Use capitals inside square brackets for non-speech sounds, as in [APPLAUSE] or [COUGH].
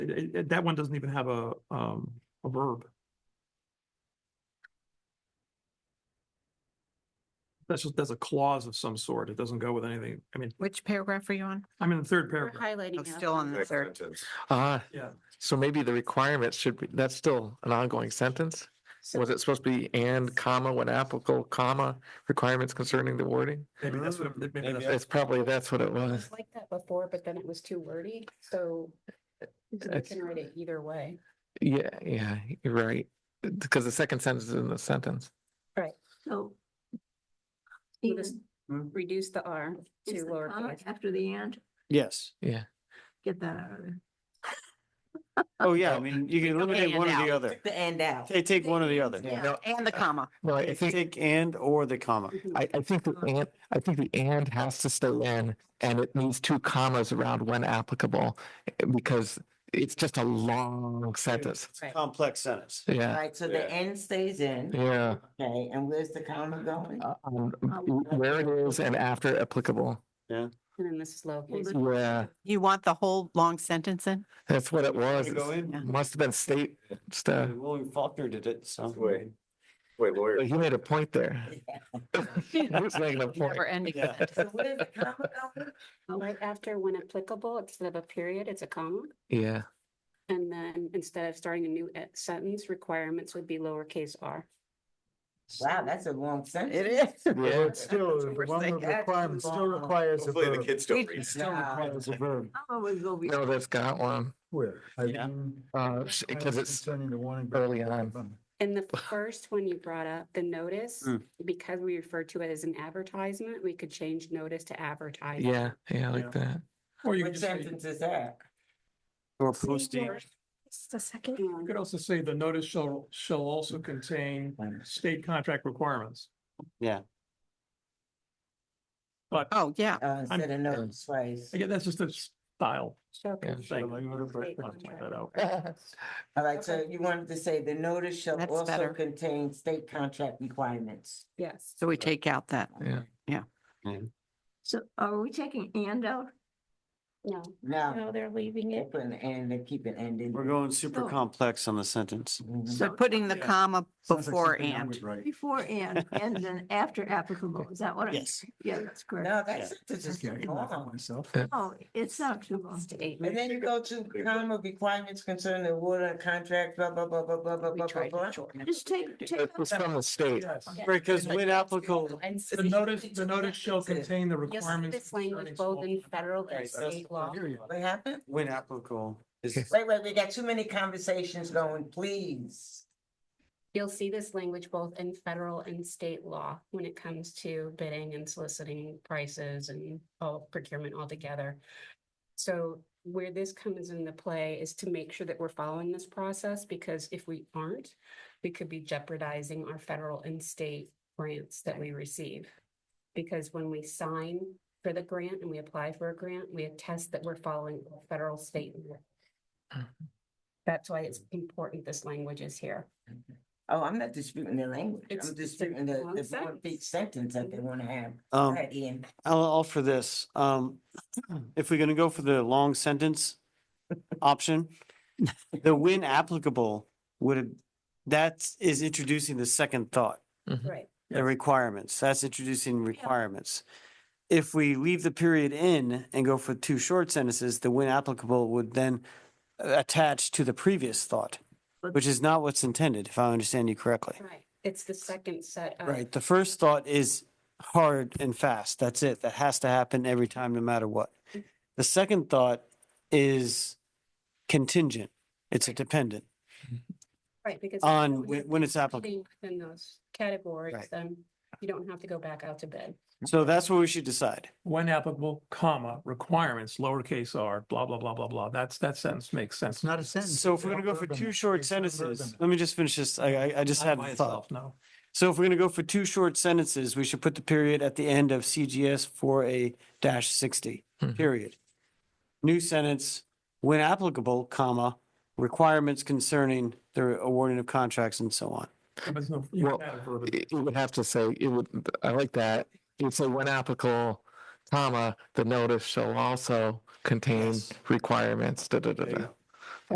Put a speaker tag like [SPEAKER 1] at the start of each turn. [SPEAKER 1] it- it- that one doesn't even have a, um, a verb. That's just, that's a clause of some sort. It doesn't go with anything. I mean,
[SPEAKER 2] Which paragraph are you on?
[SPEAKER 1] I'm in the third
[SPEAKER 3] We're
[SPEAKER 1] paragraph.
[SPEAKER 3] highlighting.
[SPEAKER 2] I'm
[SPEAKER 3] that
[SPEAKER 2] still on
[SPEAKER 3] one.
[SPEAKER 2] the third.
[SPEAKER 4] Ah,
[SPEAKER 1] Yeah,
[SPEAKER 4] so maybe the requirements should be, that's still an ongoing sentence? Was it supposed to be and comma when applicable, comma, requirements concerning the wording?
[SPEAKER 1] maybe that's what, maybe
[SPEAKER 4] Maybe
[SPEAKER 1] that's.
[SPEAKER 4] It's probably, that's what it
[SPEAKER 5] It
[SPEAKER 4] was.
[SPEAKER 5] was Like that before, but then it was too wordy, so you
[SPEAKER 4] That's-
[SPEAKER 5] can write it either way.
[SPEAKER 4] Yeah, yeah, you're right. Because the second sentence is in the sentence.
[SPEAKER 6] So.
[SPEAKER 5] We'll
[SPEAKER 6] Even
[SPEAKER 5] just Reduce the R
[SPEAKER 6] is
[SPEAKER 5] to
[SPEAKER 6] the comma
[SPEAKER 5] lowercase.
[SPEAKER 6] after the and,
[SPEAKER 7] Yes.
[SPEAKER 6] get that out of there.
[SPEAKER 7] Oh, yeah. I mean, you can eliminate
[SPEAKER 2] and
[SPEAKER 7] one or the
[SPEAKER 2] out.
[SPEAKER 7] other.
[SPEAKER 3] The and out.
[SPEAKER 7] Take, take one or the other.
[SPEAKER 4] Yeah.
[SPEAKER 2] Yeah, and the comma.
[SPEAKER 4] No, I
[SPEAKER 7] Take-
[SPEAKER 4] think,
[SPEAKER 7] Take and or the comma.
[SPEAKER 4] I, I think the and, I think the and has to stay in and it needs two commas around when applicable eh, because it's just a long sentence.
[SPEAKER 7] It's a Complex sentence.
[SPEAKER 4] Yeah,
[SPEAKER 8] Right, so the N stays in,
[SPEAKER 4] yeah.
[SPEAKER 8] okay, and where's the comma going?
[SPEAKER 4] Uh, um, w- Where it is and after applicable.
[SPEAKER 5] And then this is lowercase.
[SPEAKER 4] Yeah,
[SPEAKER 2] You want the whole long sentence in?
[SPEAKER 4] that's what it was.
[SPEAKER 7] Go
[SPEAKER 4] It's-
[SPEAKER 7] in.
[SPEAKER 4] Must have been state stuff.
[SPEAKER 7] Uh, William Faulkner did it, so.
[SPEAKER 9] Wait, wait, lawyer.
[SPEAKER 4] But He made a point there. He was making a point.
[SPEAKER 2] Never ending.
[SPEAKER 7] Yeah.
[SPEAKER 2] sentence.
[SPEAKER 8] So where's the comma going?
[SPEAKER 5] Right after when applicable, instead of a period, it's a comma.
[SPEAKER 4] Yeah,
[SPEAKER 5] And then instead of starting a new e- sentence, requirements would be lowercase r.
[SPEAKER 8] Wow, that's a long sentence. It is.
[SPEAKER 4] yeah.
[SPEAKER 10] But still,
[SPEAKER 8] We're
[SPEAKER 10] one
[SPEAKER 8] saying
[SPEAKER 10] of the
[SPEAKER 8] that's
[SPEAKER 10] requirements still
[SPEAKER 8] long.
[SPEAKER 10] requires a
[SPEAKER 9] Hopefully the
[SPEAKER 10] verb.
[SPEAKER 9] kids don't
[SPEAKER 2] Read-
[SPEAKER 9] read.
[SPEAKER 10] Still
[SPEAKER 8] Yeah.
[SPEAKER 10] requires a verb.
[SPEAKER 6] I always go.
[SPEAKER 4] No, that's got one.
[SPEAKER 10] Where? I
[SPEAKER 7] Yeah.
[SPEAKER 10] mean,
[SPEAKER 4] Uh, sh- 'cause it's
[SPEAKER 10] Concerning the one. and-
[SPEAKER 4] early on.
[SPEAKER 5] In the first one you brought up, the notice,
[SPEAKER 7] Mm.
[SPEAKER 5] because we refer to it as an advertisement, we could change notice to advertise.
[SPEAKER 4] Yeah, yeah, I
[SPEAKER 7] Yeah.
[SPEAKER 4] like that.
[SPEAKER 1] Or you could
[SPEAKER 8] What
[SPEAKER 1] just say,
[SPEAKER 8] sentence is that?
[SPEAKER 7] Or posting.
[SPEAKER 6] It's the second.
[SPEAKER 1] you
[SPEAKER 5] Um,
[SPEAKER 1] could also say the notice shall, shall also contain state contract requirements.
[SPEAKER 7] Yeah.
[SPEAKER 1] But
[SPEAKER 2] Oh, yeah.
[SPEAKER 8] Uh, instead of notice, right?
[SPEAKER 1] again, that's just a style
[SPEAKER 5] shall
[SPEAKER 4] Yeah.
[SPEAKER 1] thing.
[SPEAKER 7] Like, what if I-
[SPEAKER 1] I'll point that out.
[SPEAKER 8] All right, so you wanted to say the notice shall
[SPEAKER 2] That's
[SPEAKER 8] also
[SPEAKER 2] better.
[SPEAKER 8] contain state contract requirements.
[SPEAKER 5] Yes.
[SPEAKER 2] So we take out that.
[SPEAKER 4] Yeah.
[SPEAKER 6] So are we taking and out?
[SPEAKER 5] No.
[SPEAKER 8] No,
[SPEAKER 5] they're leaving
[SPEAKER 8] they put an and, they keep an and in.
[SPEAKER 7] We're going super complex on the sentence.
[SPEAKER 8] Mhm.
[SPEAKER 2] So putting the
[SPEAKER 1] Yeah.
[SPEAKER 2] comma
[SPEAKER 10] Sounds like
[SPEAKER 2] before
[SPEAKER 10] something I
[SPEAKER 2] and.
[SPEAKER 10] would write.
[SPEAKER 6] Before
[SPEAKER 7] [LAUGHS]
[SPEAKER 6] and, and then after applicable, is that what? I'm-
[SPEAKER 7] Yes.
[SPEAKER 6] Yeah, that's correct.
[SPEAKER 8] No, that sentence is
[SPEAKER 10] Okay, I
[SPEAKER 8] too
[SPEAKER 10] can laugh at
[SPEAKER 8] long.
[SPEAKER 10] myself.
[SPEAKER 6] Oh, it's not too long.
[SPEAKER 8] And then you go to comma requirements concerning the water contract, blah, blah, blah, blah, blah, blah,
[SPEAKER 2] We
[SPEAKER 8] blah, blah,
[SPEAKER 2] tried to
[SPEAKER 8] blah.
[SPEAKER 2] shorten it.
[SPEAKER 6] Just take, take.
[SPEAKER 4] It was from the state.
[SPEAKER 1] Yes.
[SPEAKER 7] Right, because when applicable,
[SPEAKER 1] The notice, the notice shall contain the requirements.
[SPEAKER 5] This language
[SPEAKER 1] concerning
[SPEAKER 5] both in
[SPEAKER 1] small-
[SPEAKER 5] federal and
[SPEAKER 7] Right, that's-
[SPEAKER 5] state law.
[SPEAKER 10] Here you are.
[SPEAKER 8] What happened?
[SPEAKER 7] when applicable is, um,
[SPEAKER 8] Wait, wait, we got too many conversations going, please.
[SPEAKER 5] You'll see this language both in federal and state law when it comes to bidding and soliciting prices and all procurement altogether. So where this comes into play is to make sure that we're following this process, because if we aren't, we could be jeopardizing our federal and state grants that we receive. Because when we sign for the grant and we apply for a grant, we attest that we're following federal, state. law. That's why it's important this language is here.
[SPEAKER 8] Oh, I'm not disputing the language.
[SPEAKER 5] It's-
[SPEAKER 8] I'm
[SPEAKER 5] it's a
[SPEAKER 8] disputing the,
[SPEAKER 5] long
[SPEAKER 8] the one
[SPEAKER 5] sentence.
[SPEAKER 8] big sentence that they wanna have. Go
[SPEAKER 7] um,
[SPEAKER 8] ahead, Ian.
[SPEAKER 7] I'll offer this. Um, [CLEARS THROAT] if we're gonna go for the long [LAUGHS] sentence option, the when applicable would, have that is introducing the second thought.
[SPEAKER 5] Right.
[SPEAKER 7] the requirements. That's introducing requirements. If we leave the period in and go for two short sentences, the when applicable would then uh, attach to the previous thought,
[SPEAKER 6] But-
[SPEAKER 7] which is not what's intended, if I understand you correctly.
[SPEAKER 5] Right, it's the second set of.
[SPEAKER 7] Right, the first thought is hard and fast. That's it. That has to happen every time, no matter what. The second thought is contingent. It's a dependent
[SPEAKER 5] Right, because.
[SPEAKER 7] on when when it's applicable.
[SPEAKER 5] Within those categories,
[SPEAKER 7] Right.
[SPEAKER 5] then you don't have to go back out to bid.
[SPEAKER 7] So that's what we should decide.
[SPEAKER 1] When applicable, comma, requirements, lowercase r, blah, blah, blah, blah, blah. That's, that sentence makes sense.
[SPEAKER 10] It's not a sentence.
[SPEAKER 7] So if
[SPEAKER 10] it's
[SPEAKER 7] we're
[SPEAKER 10] a
[SPEAKER 7] gonna go for
[SPEAKER 10] verb in
[SPEAKER 7] two
[SPEAKER 10] it.
[SPEAKER 7] short
[SPEAKER 10] It's a verb in
[SPEAKER 7] sentences,
[SPEAKER 10] it.
[SPEAKER 7] let me just finish this. I, I, I just
[SPEAKER 1] Not
[SPEAKER 7] had
[SPEAKER 1] by
[SPEAKER 7] a
[SPEAKER 1] itself,
[SPEAKER 7] thought.
[SPEAKER 1] No.
[SPEAKER 7] So if we're gonna go for two short sentences, we should put the period at the end of CGS four A dash sixty,
[SPEAKER 4] Mhm.
[SPEAKER 7] period. New sentence, when applicable, comma, requirements concerning the awarding of contracts and so on.
[SPEAKER 1] There's no- you
[SPEAKER 4] Well,
[SPEAKER 1] can add a verb.
[SPEAKER 4] It it would have to say, it would, I like that. It would say when applicable, comma, the notice shall also contain
[SPEAKER 7] Yes.
[SPEAKER 4] requirements, da, da, da,
[SPEAKER 7] There you
[SPEAKER 4] da.
[SPEAKER 7] go.